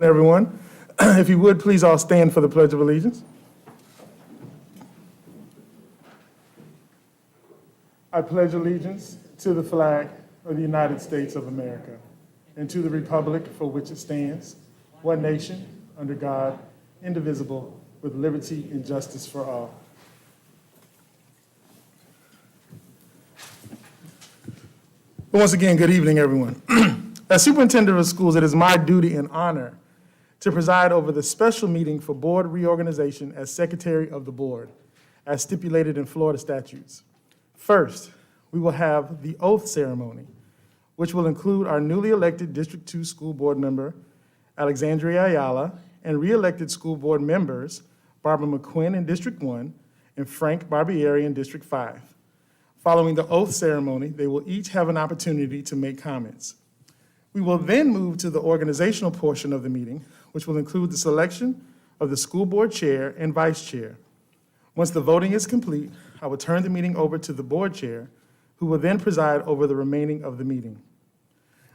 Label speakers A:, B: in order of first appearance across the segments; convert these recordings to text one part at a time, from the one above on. A: everyone. If you would, please all stand for the Pledge of Allegiance. I pledge allegiance to the flag of the United States of America and to the republic for which it stands, one nation, under God, indivisible, with liberty and justice for all. But once again, good evening, everyone. As superintendent of schools, it is my duty and honor to preside over the special meeting for board reorganization as secretary of the board, as stipulated in Florida statutes. First, we will have the oath ceremony, which will include our newly elected District Two School Board member, Alexandria Ayala, and re-elected school board members, Barbara McQuinn in District One and Frank Barbieri in District Five. Following the oath ceremony, they will each have an opportunity to make comments. We will then move to the organizational portion of the meeting, which will include the selection of the school board chair and vice chair. Once the voting is complete, I will turn the meeting over to the board chair, who will then preside over the remaining of the meeting.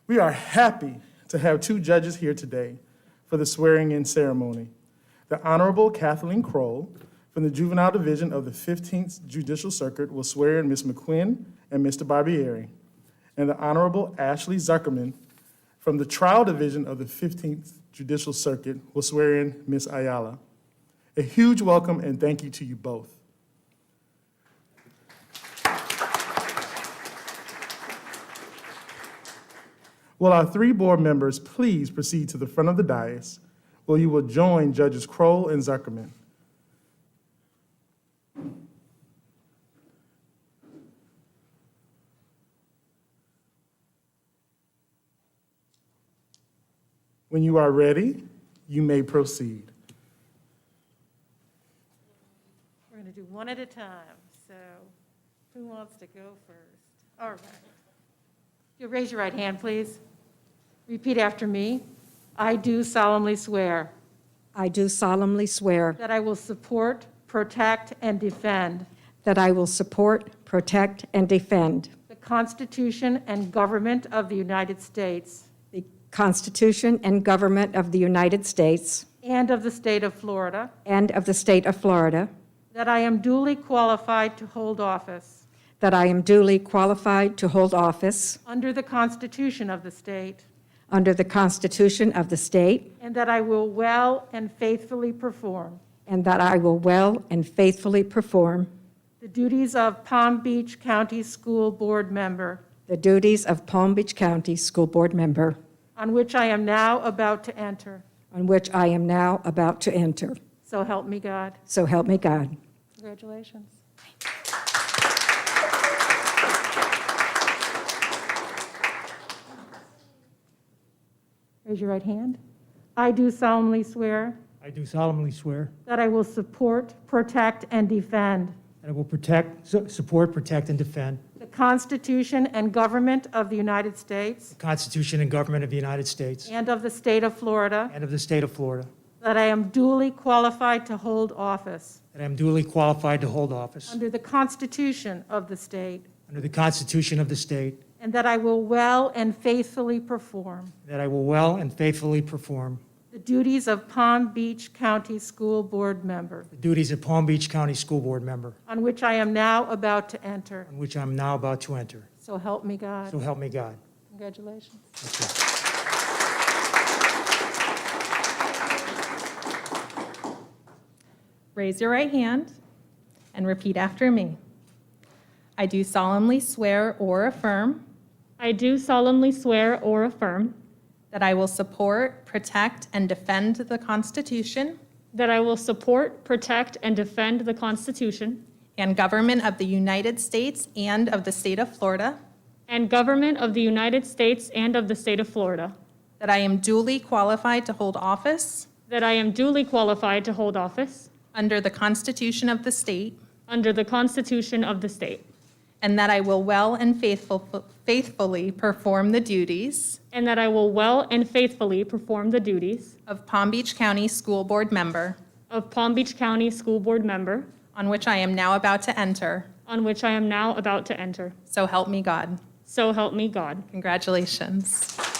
A: We are happy to have two judges here today for the swearing-in ceremony. The Honorable Kathleen Kroll from the Juvenile Division of the 15th Judicial Circuit will swear in Ms. McQuinn and Mr. Barbieri. And the Honorable Ashley Zuckerman from the Trial Division of the 15th Judicial Circuit will swear in Ms. Ayala. A huge welcome and thank you to you both. Will our three board members please proceed to the front of the dais where you will join Judges Kroll and Zuckerman? When you are ready, you may proceed.
B: We're going to do one at a time, so who wants to go first? All right. You'll raise your right hand, please. Repeat after me. I do solemnly swear
C: I do solemnly swear
B: that I will support, protect, and defend
C: that I will support, protect, and defend
B: the Constitution and government of the United States
C: the Constitution and government of the United States
B: and of the state of Florida,
C: and of the state of Florida,
B: that I am duly qualified to hold office
C: that I am duly qualified to hold office
B: under the Constitution of the state,
C: under the Constitution of the state,
B: and that I will well and faithfully perform
C: and that I will well and faithfully perform
B: The duties of Palm Beach County School Board member,
C: the duties of Palm Beach County School Board member,
B: on which I am now about to enter.
C: on which I am now about to enter.
B: So help me God.
C: So help me God.
B: Congratulations. Raise your right hand. I do solemnly swear
D: I do solemnly swear
B: that I will support, protect, and defend
D: that I will protect, su- support, protect, and defend
B: the Constitution and government of the United States
D: the Constitution and government of the United States
B: and of the state of Florida,
D: and of the state of Florida,
B: That I am duly qualified to hold office
D: that I am duly qualified to hold office
B: under the Constitution of the state,
D: under the Constitution of the state,
B: and that I will well and faithfully perform
D: that I will well and faithfully perform
B: the duties of Palm Beach County School Board member,
D: the duties of Palm Beach County School Board member,
B: on which I am now about to enter.
D: on which I'm now about to enter.
B: So help me
D: So
B: God.
D: help me God.
B: Congratulations.
E: Raise your right hand and repeat after me. I do solemnly swear or affirm
F: I do solemnly swear or affirm
E: that I will support, protect, and defend the Constitution
F: that I will support, protect, and defend the Constitution
E: and government of the United States and of the state of Florida,
F: and government of the United States and of the state of Florida,
E: that I am duly qualified to hold office
F: that I am duly qualified to hold office
E: under the Constitution of the state,
F: under the Constitution of the state,
E: and that I will well and faithful- faithfully perform the duties
F: and that I will well and faithfully perform the duties
E: of Palm Beach County School Board member,
F: of Palm Beach County School Board member,
E: on which I am now about to enter.
F: on which I am now about to enter.
E: So help me God.
F: So help me God.
E: Congratulations.